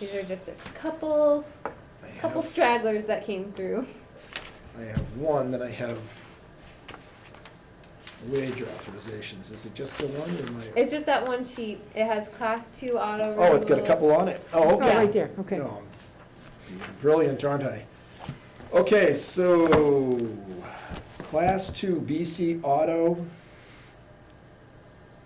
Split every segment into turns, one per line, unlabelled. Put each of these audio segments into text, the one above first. These are just a couple,
I have-
couple stragglers that came through.
I have one that I have wage authorizations. Is it just the one or my?
It's just that one sheet. It has class two auto.
Oh, it's got a
renewal.
couple on it. Oh, okay.
Yeah,
Right there, okay.
No, I'm Brilliant, aren't I? Okay, so Class 2 BC Auto,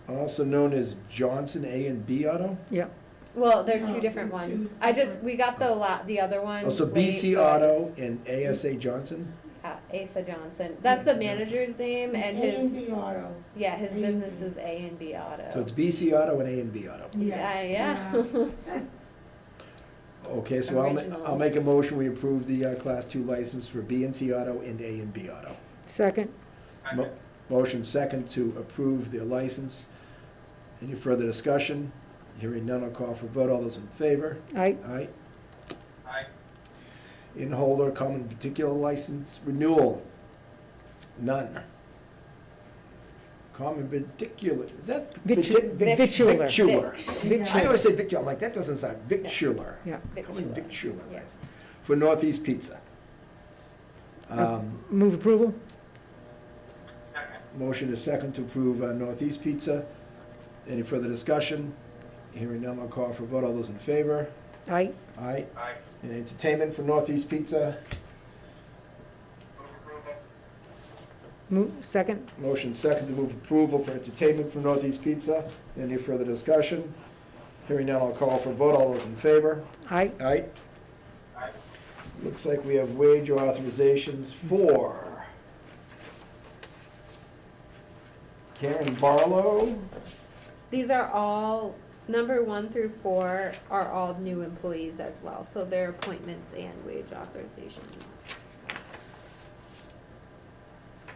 also known as Johnson A and B Auto.
Yeah,
Well, they're
No,
two different
they're Oh, two
ones. I just,
separate.
we got the la, the other one.
Also
late,
BC
so I
Auto
just-
and ASA Johnson.
uh, Asa Johnson. That's the manager's name and
A and
his,
B auto.
yeah, his
A and B.
business is A and B Auto.
So it's BC Auto and A and B Auto.
Yeah,
Yes.
yeah.
Okay, so I'll, ma- I'll
Originals.
make a motion, we approve the uh, Class 2 license for B and C Auto and A and B Auto.
second,
Mo- Motion second to approve the license. Any further discussion? Hearing none, I'll call for vote. All those in favor?
I,
Aye. In holder, common particular license renewal. None. Common particular, is that?
Vitu-
partic- vic-
Victular.
Victular. I
Victular.
always say victular, I'm like, that doesn't sound, victular.
yeah.
Common
Victular.
victular
Yeah.
license, for Northeast Pizza. Um,
Move approval?
Motion is second to approve uh, Northeast Pizza. Any further discussion? Hearing none, I'll call for vote. All those in favor?
I,
Aye. Aye. And entertainment for Northeast Pizza.
move, second,
Motion second to move approval for entertainment for Northeast Pizza. Any further discussion? Hearing none, I'll call for vote. All those in favor?
I,
Aye. Aye. Looks like we have wage authorizations for Karen Barlow.
These are all, number one through four are all new employees as well, so their appointments and wage authorizations.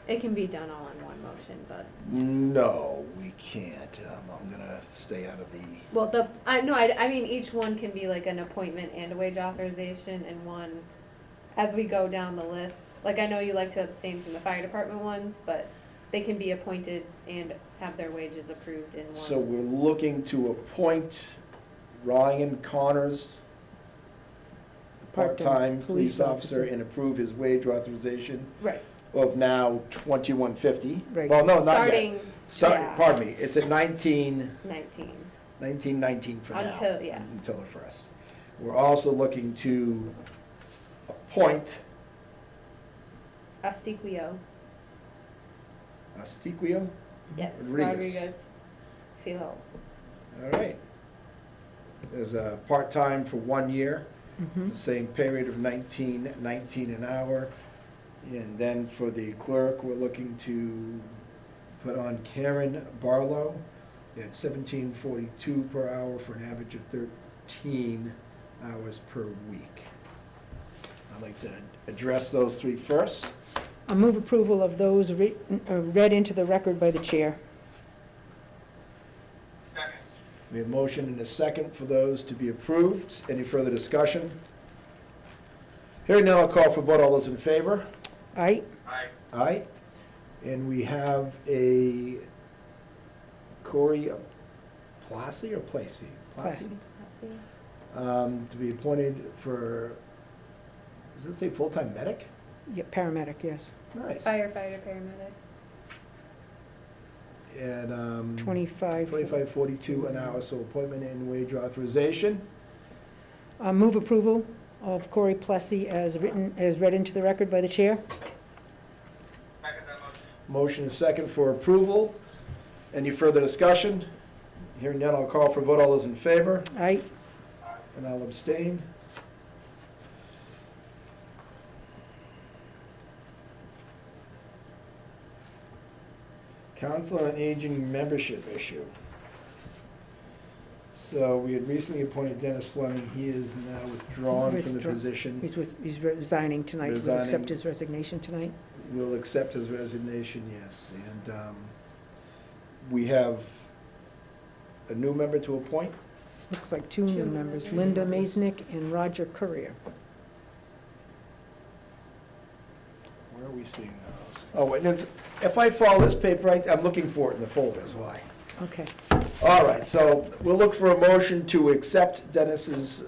It can be done all in one motion, but,
No, we can't. Um, I'm gonna stay out of the,
well, the, I, no, I, I mean, each one can be like an appointment and a wage authorization and one, as we go down the list, like I know you like to abstain from the fire department ones, but they can be appointed and have their wages approved in one.
so we're looking to appoint Ryan Connors,
Part-time
part-time
police
police officer,
officer.
and approve his wage authorization
Right,
of now twenty-one fifty.
Right.
Well, no, not yet.
starting, yeah.
Start, pardon me, it's at nineteen,
nineteen.
nineteen nineteen for now.
Until- yeah.
Until the first. We're also looking to appoint
Astiquio,
Astiquio,
yes,
Rodriguez.
Rodriguez Filho.
all right. As a part-time for one year.
mhm,
the same period of nineteen, nineteen an hour. And then for the clerk, we're looking to put on Karen Barlow at seventeen forty-two per hour for an average of thirteen hours per week. I'd like to address those three first.
I move approval of those re- uh, read into the record by the chair.
We have motion and a second for those to be approved. Any further discussion? Hearing none, I'll call for vote. All those in favor?
I,
All right, and we have a Corey Plassi or Placey? Plassi?
Asti-
Um, to be appointed for, does it say full-time medic?
yeah, paramedic, yes,
Nice.
Firefighter, paramedic.
And, um.
twenty-five.
Twenty-five forty-two an hour, so appointment and wage authorization.
I move approval of Corey Plessy as written, as read into the record by the chair.
Motion is second for approval. Any further discussion? Hearing none, I'll call for vote. All those in favor?
I,
And I'll abstain. Council on Aging membership issue. So we had recently appointed Dennis Fleming, he is now withdrawn from the
Withdraw-
position.
he's with, he's resigning tonight, we'll
Resigning.
accept his resignation tonight.
We'll accept his resignation, yes, and um, we have a new member to appoint.
Looks like two
Two
new
members.
members, Linda Maisnick and Roger Courier.
Where are we seeing those? Oh, and it's, if I follow this paper, right, I'm looking for it in the folder is why.
Okay.
All right, so we'll look for a motion to accept Dennis's